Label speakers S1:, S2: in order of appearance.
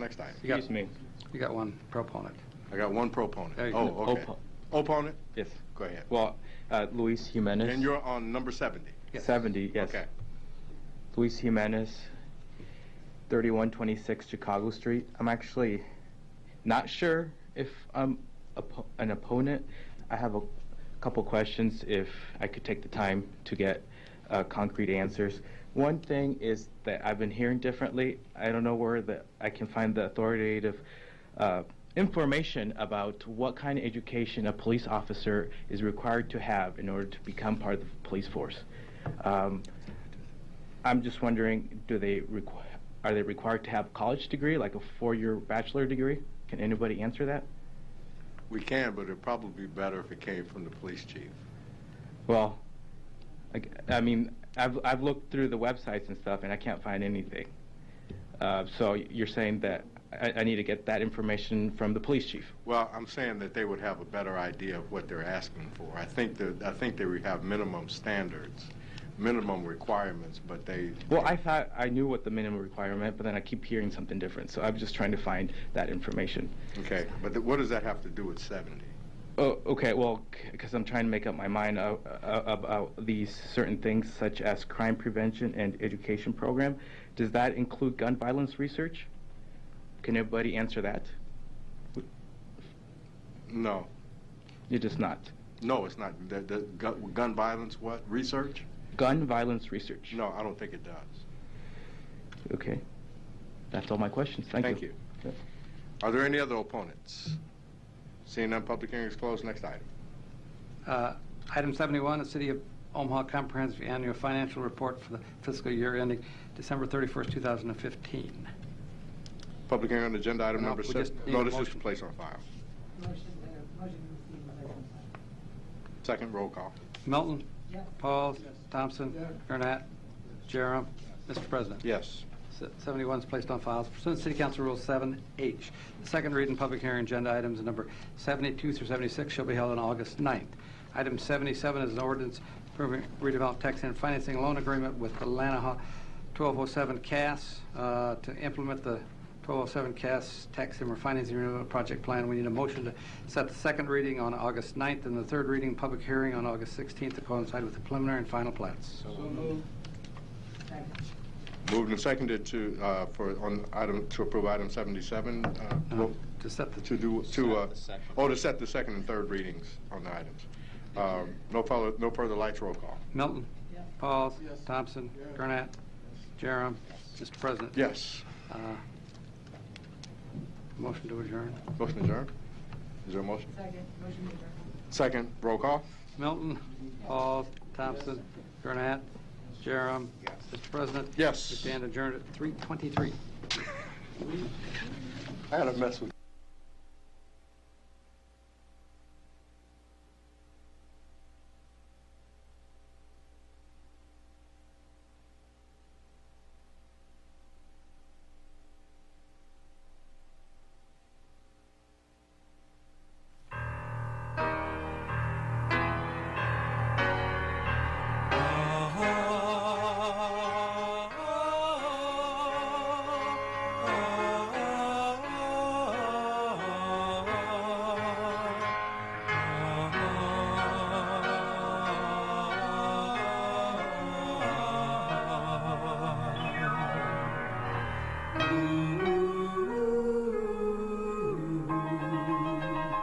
S1: Next item.
S2: Excuse me.
S3: You got one proponent.
S1: I got one proponent.
S3: Hey,
S1: Oh, okay.
S2: oppo-
S1: Opponent?
S2: Yes.
S1: Go ahead.
S2: Well, uh, Luis Jimenez.
S1: And you're on number 70.
S3: Yes.
S2: 70, yes.
S1: Okay.
S2: Luis Jimenez, 3126 Chicago Street. I'm actually not sure if I'm oppo- an opponent. I have a couple questions if I could take the time to get uh, concrete answers. One thing is that I've been hearing differently. I don't know where the, I can find the authoritative uh, information about what kind of education a police officer is required to have in order to become part of the police force. Um, I'm just wondering, do they requ- are they required to have a college degree, like a four-year bachelor degree? Can anybody answer that?
S1: We can, but it'd probably be better if it came from the police chief.
S2: Well, I, g- I mean, I've I've looked through the websites and stuff, and I can't find anything. Uh, so you're saying that I, I need to get that information from the police chief?
S1: Well, I'm saying that they would have a better idea of what they're asking for. I think that, I think they would have minimum standards, minimum requirements, but they.
S2: Well, I thought I knew what the minimum requirement, but then I keep hearing something different. So I'm just trying to find that information.
S1: Okay, but th- what does that have to do with 70?
S2: Oh, okay. Well, because I'm trying to make up my mind uh, uh, about these certain things, such as crime prevention and education program. Does that include gun violence research? Can anybody answer that?
S1: No,
S2: It does not.
S1: no, it's not. The, the gu- gun violence, what? Research?
S2: Gun violence research.
S1: No, I don't think it does.
S2: Okay. That's all my questions. Thank,
S1: Thank
S2: you.
S1: you. Are there any other opponents? Seeing none, public hearing is closed. Next item.
S3: Uh, Item 71, the City of Omaha Comprehensive Annual Financial Report for the fiscal year ending December 31st, 2015.
S1: Public hearing on agenda item
S3: No,
S1: number
S3: we
S1: six.
S3: just need
S1: No,
S3: a
S1: this is to
S3: motion.
S1: place on file.
S4: Motion, uh, motion to receive uh, and place on file.
S1: Second roll call.
S3: Milton.
S4: Yes.
S3: Pauls. Thompson. Gurnett. Jerem. Mr. President.
S1: Yes.
S3: Se- 71 is placed on files pursuant to City Council Rule 7H. The second reading public hearing agenda items number 72 through 76 shall be held on August 9th. Item 77 is an ordinance approving redevelopment tax and financing loan agreement with the Lanahaw 1207 CAS uh, to implement the 1207 CAS tax and refinancing redevelopment project plan. We need a motion to set the second reading on August 9th and the third reading public hearing on August 16th to coincide with the preliminary and final plats.
S4: Second.
S1: Moved and seconded to, uh, for, on item, to approve item 77, uh,
S3: No, To set the
S1: to do, to, uh, oh, to set the second and third readings on the items. Um, No further, no further lights, roll call.
S3: Milton.
S4: Yes.
S3: Pauls. Thompson. Gurnett. Jerem. Mr. President.
S1: Yes.
S3: Uh, Motion to adjourn.
S1: Motion adjourned. Is there a motion?
S4: Second, motion to adjourn.
S1: Second, roll call.
S3: Milton. Pauls. Thompson. Gurnett. Jerem. Mr. President.
S1: Yes.
S3: We stand adjourned at 3:23.
S1: I had a mess with.